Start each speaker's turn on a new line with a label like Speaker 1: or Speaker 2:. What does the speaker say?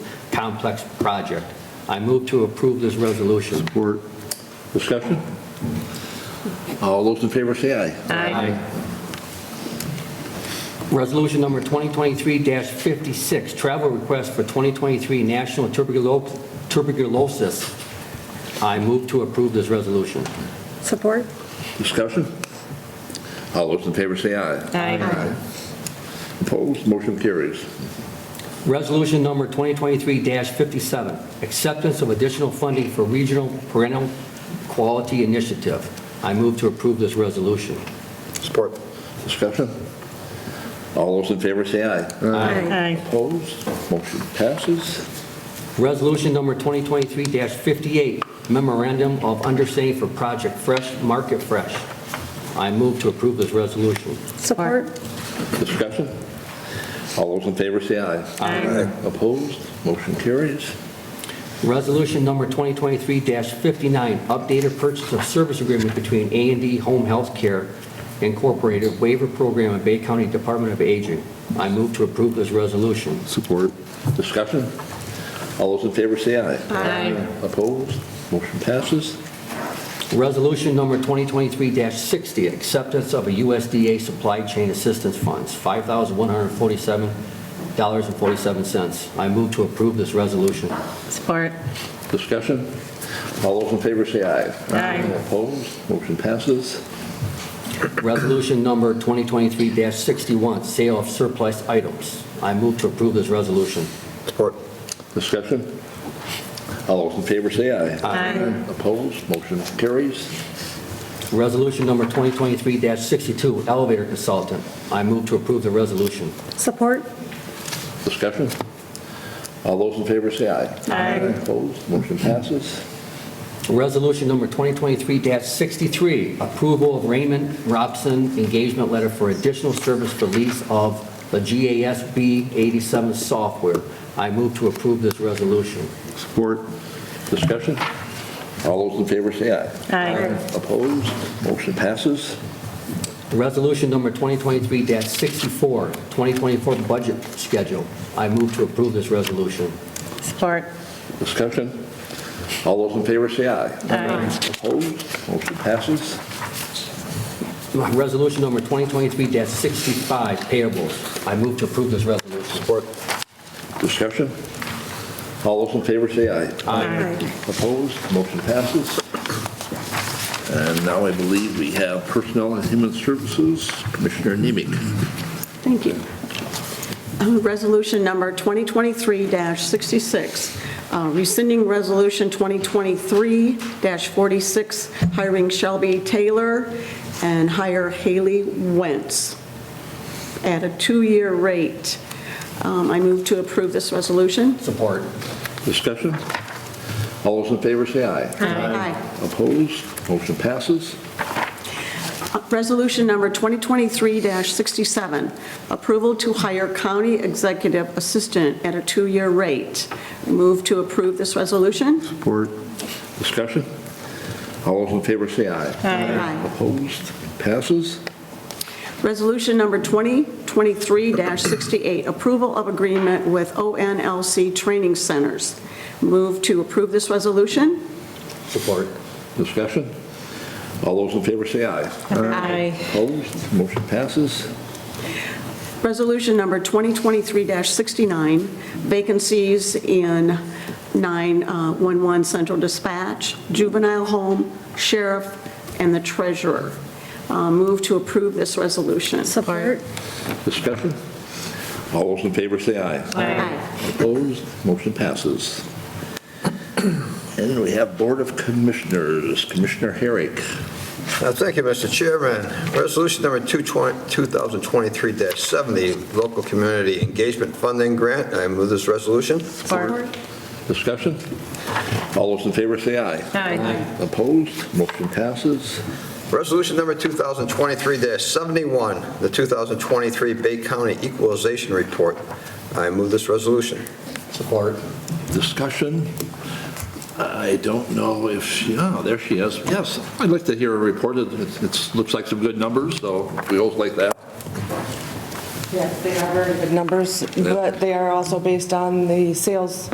Speaker 1: complex project. I move to approve this resolution.
Speaker 2: Support. Discussion? All those in favor say aye.
Speaker 1: Resolution number 2023-56, travel request for 2023 National Tuberculo- Tuberculosis. I move to approve this resolution.
Speaker 3: Support?
Speaker 2: Discussion? All those in favor say aye.
Speaker 3: Aye.
Speaker 2: Opposed, motion carries.
Speaker 1: Resolution number 2023-57, acceptance of additional funding for regional parental quality initiative. I move to approve this resolution.
Speaker 4: Support.
Speaker 2: Discussion? All those in favor say aye.
Speaker 3: Aye.
Speaker 2: Opposed, motion passes.
Speaker 1: Resolution number 2023-58, memorandum of understanding for Project Fresh, Market Fresh. I move to approve this resolution.
Speaker 3: Support?
Speaker 2: Discussion? All those in favor say aye.
Speaker 3: Aye.
Speaker 2: Opposed, motion carries.
Speaker 1: Resolution number 2023-59, updated purchase of service agreement between a and D Home Health Care Incorporated waiver program and Bay County Department of Aging. I move to approve this resolution.
Speaker 2: Support. Discussion? All those in favor say aye.
Speaker 3: Aye.
Speaker 2: Opposed, motion passes.
Speaker 1: Resolution number 2023-60, acceptance of a USDA Supply Chain Assistance Funds, $5,147.47. I move to approve this resolution.
Speaker 3: Support?
Speaker 2: Discussion? All those in favor say aye.
Speaker 3: Aye.
Speaker 2: Opposed? Motion passes.
Speaker 1: Resolution number 2023-61, sale of surplus items. I move to approve this resolution.
Speaker 4: Support.
Speaker 2: Discussion? All those in favor say aye.
Speaker 3: Aye.
Speaker 2: Opposed? Motion carries.
Speaker 1: Resolution number 2023-62, elevator consultant. I move to approve the resolution.
Speaker 3: Support?
Speaker 2: Discussion? All those in favor say aye.
Speaker 3: Aye.
Speaker 2: Opposed? Motion passes.
Speaker 1: Resolution number 2023-63, approval of Raymond Robson engagement letter for additional service for lease of the GASB 87 software. I move to approve this resolution.
Speaker 2: Support. Discussion? All those in favor say aye.
Speaker 3: Aye.
Speaker 2: Opposed? Motion passes.
Speaker 1: Resolution number 2023-64, 2024 budget schedule. I move to approve this resolution.
Speaker 3: Support?
Speaker 2: Discussion? All those in favor say aye.
Speaker 3: Aye.
Speaker 2: Opposed? Motion passes.
Speaker 1: Resolution number 2023-65, payables. I move to approve this resolution.
Speaker 4: Support.
Speaker 2: Discussion? All those in favor say aye.
Speaker 3: Aye.
Speaker 2: Opposed, motion passes. And now I believe we have Personnel and Human Services, Commissioner Nemec.
Speaker 5: Thank you. Uh, Resolution number 2023-66, uh, rescinding Resolution 2023-46, hiring Shelby Taylor and hire Haley Wentz at a two-year rate. Um, I move to approve this resolution.
Speaker 1: Support.
Speaker 2: Discussion? All those in favor say aye.
Speaker 5: Aye.
Speaker 2: Opposed, motion passes.
Speaker 5: Uh, Resolution number 2023-67, approval to hire county executive assistant at a two-year rate. Move to approve this resolution?
Speaker 2: Support. Discussion? All those in favor say aye.
Speaker 5: Aye.
Speaker 2: Opposed, passes.
Speaker 5: Resolution number 2023-68, approval of agreement with ONLC Training Centers. Move to approve this resolution?
Speaker 1: Support.
Speaker 2: Discussion? All those in favor say aye.
Speaker 3: Aye.
Speaker 2: Opposed, motion passes.
Speaker 5: Resolution number 2023-69, vacancies in 911 Central Dispatch, Juvenile Home, Sheriff, and the Treasurer. Uh, Move to approve this resolution.
Speaker 3: Support?
Speaker 2: Discussion? All those in favor say aye.
Speaker 5: Aye.
Speaker 2: Opposed, motion passes. And we have Board of Commissioners, Commissioner Herrick.
Speaker 4: Uh, Thank you, Mr. Chairman. Resolution number 220 2023-70, Local Community Engagement Funding Grant. I move this resolution.
Speaker 3: Support?
Speaker 2: Discussion? All those in favor say aye.
Speaker 3: Aye.
Speaker 2: Opposed, motion passes.
Speaker 4: Resolution number 2023-71, the 2023 Bay County Equalization Report. I move this resolution.
Speaker 1: Support.
Speaker 2: Discussion? I don't know if, she- oh, there she is. Yes, I'd like to hear a report. It it's- looks like some good numbers, so we always like that.
Speaker 6: Yes, they are very good numbers, but they are also based on the sales